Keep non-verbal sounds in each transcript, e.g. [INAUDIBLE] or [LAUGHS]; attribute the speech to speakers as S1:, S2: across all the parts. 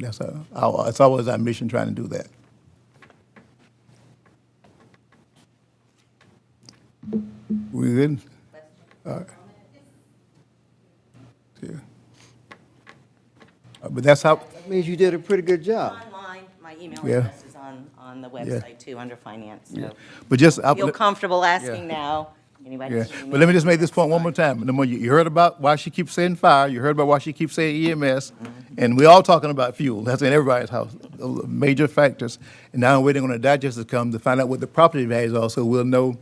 S1: That's our, our, it's always our mission trying to do that. We good? All right. Yeah. Uh, But that's how,
S2: That means you did a pretty good job.
S3: Online, my email
S1: Yeah.
S3: address is on, on the website too, under finance, so.
S1: but just. I-
S3: Feel comfortable asking now, anybody.
S1: Yeah,
S3: can
S1: but let me
S3: email
S1: just make this point one more
S3: That's
S1: time. Number, you, you heard about why she keeps saying fire, you heard about why she keeps saying EMS, and we all talking about fuel, that's in everybody's house, uh, major factors. And now we're waiting on the digest to come to find out what the property values are, so we'll know,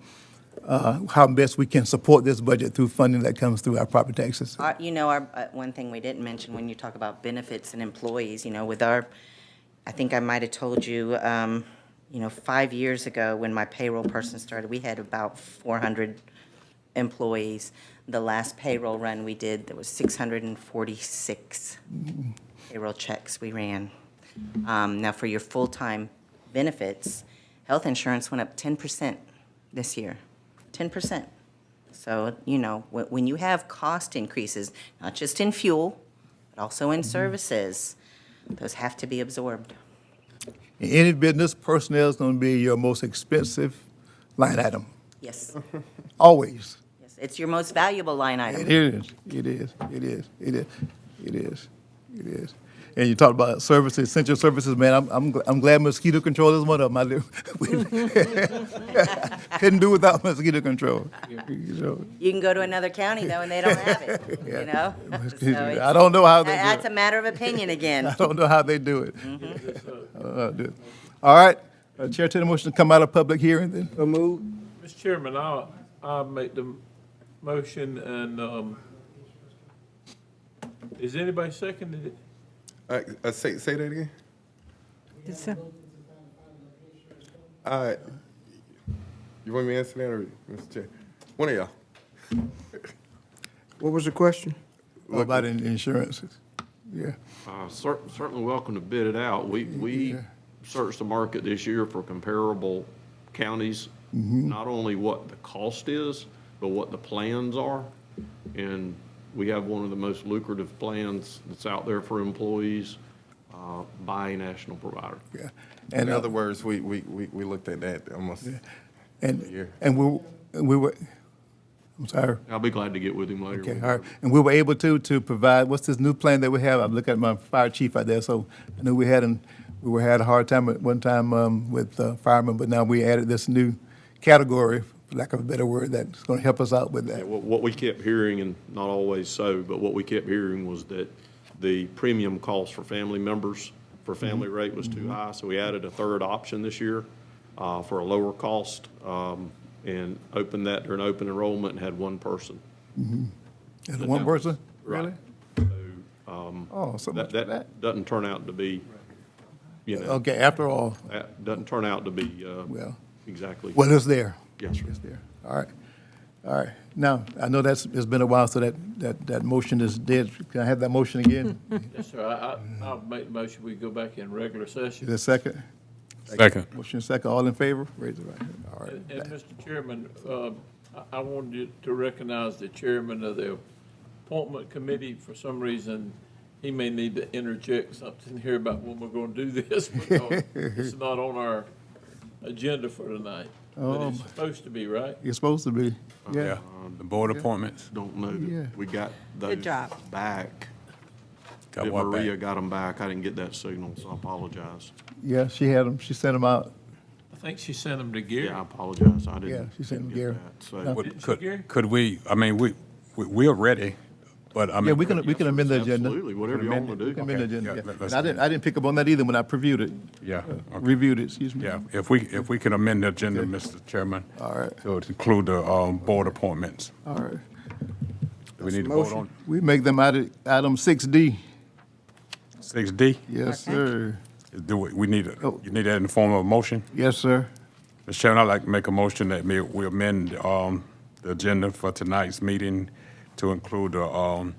S1: uh, how best we can support this budget through funding that comes through our property taxes.
S3: fine. Our- You know, our, uh, one thing we didn't mention when you talk about benefits and employees, you know, with our, I think I might have told you, um, you know, five years ago, when my payroll person started, we had about four hundred employees. The last payroll run we did, there was six hundred and forty-six payroll checks we ran. Um, Now, for your full-time benefits, health insurance went up 10% this year, 10%. So, you know, when, when you have cost increases, not just in fuel, but also
S1: Mm-hmm.
S3: in services, those have to be absorbed.
S1: In any business, personnel is gonna be your most expensive line item, [LAUGHS]
S3: Yes,
S1: always.
S3: yes, it's your most valuable line item.
S1: It is, it is, it is, it is, it is, it is. And you talked about services, essential services, man, I'm, I'm, gl- I'm glad mosquito control is one of them. I [LAUGHS] live- we- Couldn't do without mosquito control. You know,
S3: You can go to another county though, and they don't have
S1: [LAUGHS]
S3: it, you know? So it's-
S1: I don't know how they do it.
S3: That's a matter of opinion
S1: [LAUGHS]
S3: again.
S1: I don't know how they do it. I don't know how to do it. All right, uh, Chair, take the motion to come out of public hearing then.
S2: So moved.
S4: Mr. Chairman, I'll, I'll make the motion and, um, is anybody seconded it?
S5: Uh, uh, say, say that again? Uh, you want me to answer that or, Mr. Chair? One of y'all.
S2: What was the question?
S1: What About in- insurances, yeah.
S6: Uh, cer- Certainly welcome to bid it out. We, we searched the market this year for comparable counties,
S1: Mm-hmm.
S6: not only what the cost is, but what the plans are. And we have one of the most lucrative plans that's out there for employees uh, by a national provider.
S1: yeah.
S5: In
S1: And, uh,
S5: other words, we, we, we, we looked at that almost.
S1: and,
S5: year.
S1: and we, and we were, I'm sorry.
S6: I'll be glad to get with him later.
S1: Okay, all right. And we were able to, to provide, what's this new plan that we have? I'm looking at my fire chief out there, so I knew we had, an- we were, had a hard time at one time um, with uh, firemen, but now we added this new category, for lack of a better word, that's going to help us out with
S6: Yeah,
S1: that.
S6: What, what we kept hearing, and not always so, but what we kept hearing was that the premium cost for family members, for family
S1: Mm-hmm.
S6: rate was too high, so we added a third option this year uh, for a lower cost, um, and opened that during open enrollment and had one person.
S1: Is it one person? Really? Oh, so much
S6: That,
S1: for that.
S6: that doesn't turn out to be, you know,
S1: Okay, after all,
S6: that doesn't turn out to be uh,
S1: Well-
S6: exactly.
S1: well, it's there.
S6: Yes, sir.
S1: It's there. All right, all right. Now, I know that's, it's been a while, so that, that, that motion is dead. Can I have that motion again?
S4: Yes, sir, I, I, I'll make the motion, we go back in regular
S1: Is
S4: session.
S1: there a second?
S7: Second.
S1: Motion second, all in favor? Raise your right hand. All right.
S4: And, and Mr. Chairman, um, I, I wanted you to recognize the chairman of the appointment committee. For some reason, he may need to interject something here about when we're gonna do this, [LAUGHS] because it's not on our agenda for tonight. But it's supposed to be, right?
S1: You're supposed to be, yeah.
S6: Um,
S7: The board appointments,
S6: Don't know
S1: Yeah.
S6: that we got those
S3: job.
S6: back.
S7: got
S6: That
S7: what
S6: Maria
S7: back?
S6: got them back. I didn't get that signal, so I apologize.
S1: Yeah, she had them, she sent them out.
S4: I think she sent him to Gary.
S6: Yeah, I apologize. I didn't.
S1: Yeah, she sent
S6: didn't get
S1: Gary.
S6: that. So-
S1: No.
S7: Would-
S4: Gary?
S7: Could, could we, I mean, we, we- we're ready, but I mean.
S1: Yeah, we can, we can amend the agenda.
S6: Absolutely, whatever you want to
S1: We can
S6: do.
S1: amend the
S7: Okay,
S1: agenda,
S7: yeah,
S1: yeah.
S7: let-
S1: And
S7: let's
S1: I didn't, I didn't pick up on that either when I previewed it,
S7: Yeah, okay.
S1: reviewed it, excuse me.
S7: yeah, if we, if we can amend the agenda, Mr. Chairman.
S1: All right.
S7: So to include the, um, board appointments.
S1: All right.
S7: Do we need to vote
S2: motion.
S7: on
S1: We make them out of item six D.
S7: six D?
S1: Yes, sir.
S7: Do we, we need,
S1: Oh.
S7: a- you need that in the form of a motion?
S1: Yes, sir.
S7: Mr. Chairman, I'd like to make a motion that may, we amend, um, the agenda for tonight's meeting to include, the, um,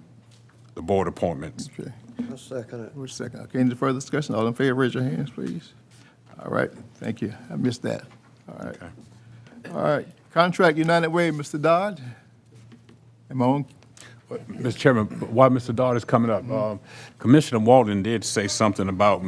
S7: the board appointments.
S1: Okay.
S2: I second it.
S1: Wait a second. Okay, any further discussion? All in favor, raise your hands, please. All right, thank you. I missed that. All right.
S7: Okay.
S1: All right. Contract United Way, Mr. Dodd. Am I on?
S7: Mr. Chairman, while Mr. Dodd is coming up, um, Commissioner Walden did say something about